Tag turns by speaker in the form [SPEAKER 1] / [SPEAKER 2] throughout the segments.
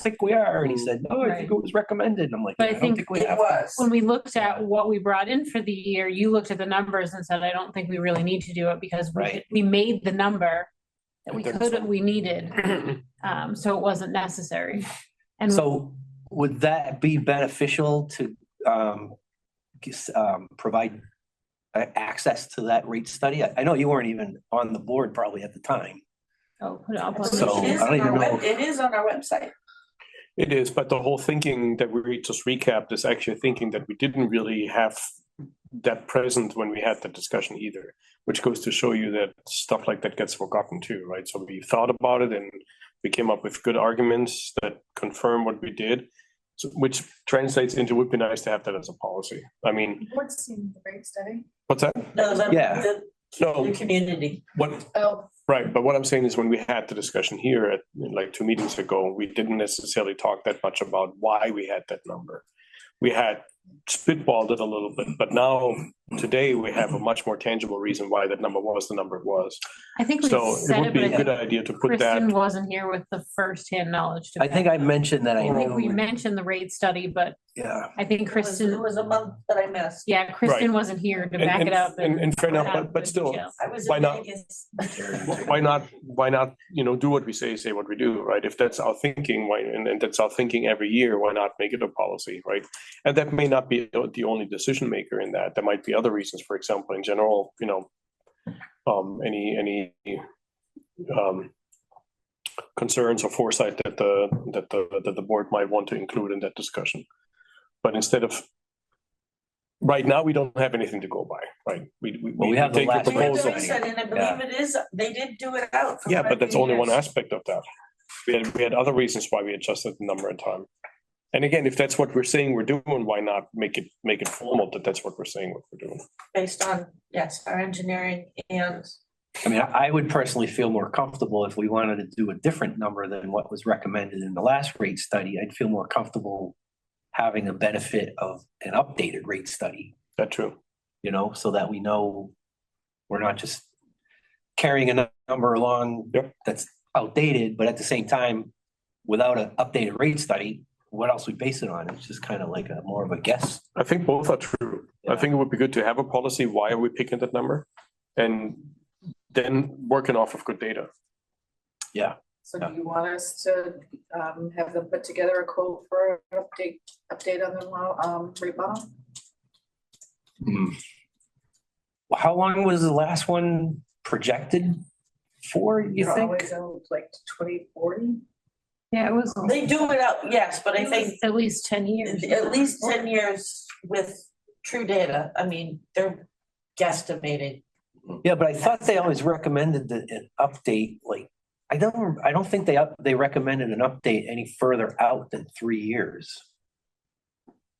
[SPEAKER 1] think we are. And he said, no, I think
[SPEAKER 2] Right.
[SPEAKER 1] it was recommended. And I'm like,
[SPEAKER 2] But I
[SPEAKER 1] I don't
[SPEAKER 2] think
[SPEAKER 1] think we
[SPEAKER 3] It
[SPEAKER 1] have.
[SPEAKER 3] was.
[SPEAKER 2] When we looked at what we brought in for the year, you looked at the numbers and said, I don't think we really need to do it because we,
[SPEAKER 1] Right.
[SPEAKER 2] could- we made the number that
[SPEAKER 1] I
[SPEAKER 2] we
[SPEAKER 1] think
[SPEAKER 2] could,
[SPEAKER 1] so.
[SPEAKER 2] we needed, um, so it wasn't necessary. And
[SPEAKER 1] So would that be beneficial to, um, gis- um, provide uh, access to that rate study? I, I know you weren't even on the board probably at the time.
[SPEAKER 2] I'll put it up on the-
[SPEAKER 1] So,
[SPEAKER 3] It is
[SPEAKER 1] I don't
[SPEAKER 3] on
[SPEAKER 1] even
[SPEAKER 3] our web-
[SPEAKER 1] know.
[SPEAKER 3] It is on our website.
[SPEAKER 4] It is, but the whole thinking that we just recapped is actually thinking that we didn't really have that present when we had that discussion either, which goes to show you that stuff like that gets forgotten too, right? So we thought about it and we came up with good arguments that confirm what we did, so- which translates into would be nice to have that as a policy. I mean,
[SPEAKER 5] What's seen the rate study?
[SPEAKER 4] what's that?
[SPEAKER 3] No, the-
[SPEAKER 1] Yeah.
[SPEAKER 3] the-
[SPEAKER 4] No,
[SPEAKER 3] The community.
[SPEAKER 4] what,
[SPEAKER 5] Oh,
[SPEAKER 4] Right, but what I'm saying is when we had the discussion here at like two meetings ago, we didn't necessarily talk that much about why we had that number. We had spitballed it a little bit, but now today we have a much more tangible reason why that number was the number it was.
[SPEAKER 2] I think we
[SPEAKER 4] So it
[SPEAKER 2] said
[SPEAKER 4] would
[SPEAKER 2] it,
[SPEAKER 4] be
[SPEAKER 2] but I
[SPEAKER 4] a good
[SPEAKER 2] think
[SPEAKER 4] idea to put
[SPEAKER 2] Kristen
[SPEAKER 4] that,
[SPEAKER 2] wasn't here with the firsthand knowledge. to
[SPEAKER 1] I think I
[SPEAKER 2] back
[SPEAKER 1] mentioned that I
[SPEAKER 2] it up. I think we
[SPEAKER 1] knew,
[SPEAKER 2] mentioned the rate study, but
[SPEAKER 1] yeah.
[SPEAKER 2] I think
[SPEAKER 3] It was- It
[SPEAKER 2] Kristen,
[SPEAKER 3] was a month that I missed.
[SPEAKER 2] yeah, Kristen wasn't here to
[SPEAKER 4] And-
[SPEAKER 2] back
[SPEAKER 4] and-
[SPEAKER 2] it up.
[SPEAKER 4] and- and fair enough,
[SPEAKER 2] have
[SPEAKER 4] but- but
[SPEAKER 2] the
[SPEAKER 4] still,
[SPEAKER 2] details.
[SPEAKER 3] I was
[SPEAKER 4] Why
[SPEAKER 3] in
[SPEAKER 4] not?
[SPEAKER 3] Vegas.
[SPEAKER 4] why not, why not, you know, do what we say, say what we do, right? If that's our thinking, why, and, and that's our thinking every year, why not make it a policy, right? And that may not be the only decision maker in that. There might be other reasons, for example, in general, you know, um, any, any, um, concerns or foresight that the, that the, that the board might want to include in that discussion. But instead of, right now, we don't have anything to go by, right? We, we.
[SPEAKER 1] Well, we have the
[SPEAKER 4] take your
[SPEAKER 1] last
[SPEAKER 3] We had the
[SPEAKER 4] proposal.
[SPEAKER 1] proposal.
[SPEAKER 3] reset, And I
[SPEAKER 1] Yeah.
[SPEAKER 3] believe it is, they did do it out. for
[SPEAKER 4] Yeah, but
[SPEAKER 3] quite a
[SPEAKER 4] that's
[SPEAKER 3] few
[SPEAKER 4] only one
[SPEAKER 3] years.
[SPEAKER 4] aspect of that. We had, we had other reasons why we adjusted the number and time. And again, if that's what we're saying we're doing, why not make it, make it formal that that's what we're saying what we're doing?
[SPEAKER 3] Based on, yes, our engineering and
[SPEAKER 1] I mean, I I would personally feel more comfortable if we wanted to do a different number than what was recommended in the last rate study. I'd feel more comfortable having the benefit of an updated rate study,
[SPEAKER 4] That true?
[SPEAKER 1] you know, so that we know we're not just carrying a nu- number along
[SPEAKER 4] Yep.
[SPEAKER 1] that's outdated, but at the same time, without an updated rate study, what else we base it on? It's just kind of like a more of a guess.
[SPEAKER 4] I think both are true. I think it would be good to have a policy. Why are we picking that number? And then working off of good data.
[SPEAKER 5] so do you want us to um have them put together a quote for an update, update on the well, um remodel?
[SPEAKER 1] Hmm. How long was the last one projected for, you
[SPEAKER 5] They're
[SPEAKER 1] think?
[SPEAKER 5] always out, Like twenty forty?
[SPEAKER 2] Yeah, it was.
[SPEAKER 3] they do it out, yes, but I think
[SPEAKER 2] At least ten years.
[SPEAKER 3] at least ten years with true data. I mean, they're guesstimating.
[SPEAKER 1] Yeah, but I thought they always recommended that an update, like, I don't, I don't think they up, they recommended an update any further out than three years.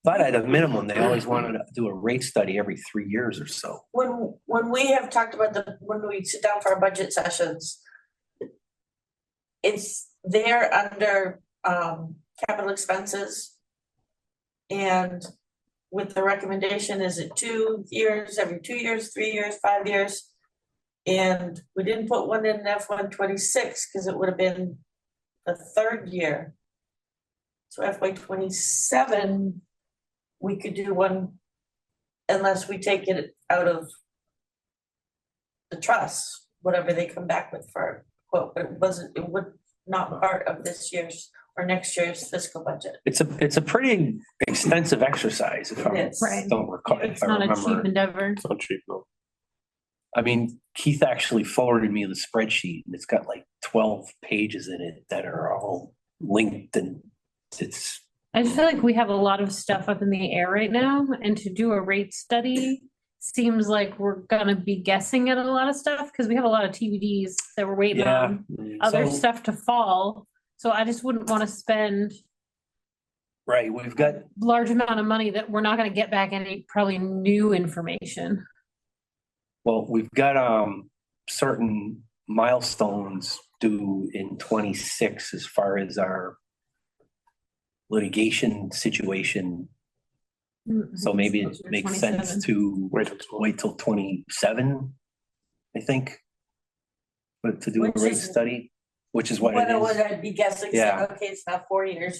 [SPEAKER 1] But at a minimum, they always wanted to do a rate study every three years or so.
[SPEAKER 3] When, when we have talked about the, when we sit down for our budget sessions, it's, they're under, um, capital expenses. And with the recommendation, is it two years, every two years, three years, five years? And we didn't put one in F one twenty-six, because it would have been the third year. So FY twenty-seven, we could do one unless we take it out of the trust, whatever they come back with for a quote, but it wasn't, it would not part of this year's or next year's fiscal budget.
[SPEAKER 1] It's a, it's a pretty extensive exercise, if I
[SPEAKER 3] Yes.
[SPEAKER 2] Right.
[SPEAKER 1] don't recall,
[SPEAKER 2] It's
[SPEAKER 1] if I
[SPEAKER 2] not a cheap
[SPEAKER 1] remember.
[SPEAKER 2] endeavor.
[SPEAKER 4] It's not cheap, no.
[SPEAKER 1] I mean, Keith actually forwarded me the spreadsheet, and it's got like twelve pages in it that are all linked, and it's,
[SPEAKER 2] I just feel like we have a lot of stuff up in the air right now, and to do a rate study seems like we're gonna be guessing at a lot of stuff, because we have a lot of TBDs that we're waiting
[SPEAKER 1] Yeah.
[SPEAKER 2] on, other
[SPEAKER 1] So-
[SPEAKER 2] stuff to fall. So I just wouldn't want to spend
[SPEAKER 1] right, we've got
[SPEAKER 2] large amount of money that we're not gonna get back any probably new information.
[SPEAKER 1] Well, we've got um certain milestones due in twenty-six as far as our litigation situation, Mm-hmm. so maybe it makes sense to
[SPEAKER 4] Wait, until-
[SPEAKER 1] wait till twenty-seven, I think. But to do a
[SPEAKER 3] Which
[SPEAKER 1] rate
[SPEAKER 3] is-
[SPEAKER 1] study, which is what it
[SPEAKER 3] What I would
[SPEAKER 1] is.
[SPEAKER 3] I'd be guessing, so,
[SPEAKER 1] Yeah.
[SPEAKER 3] okay, it's not four years,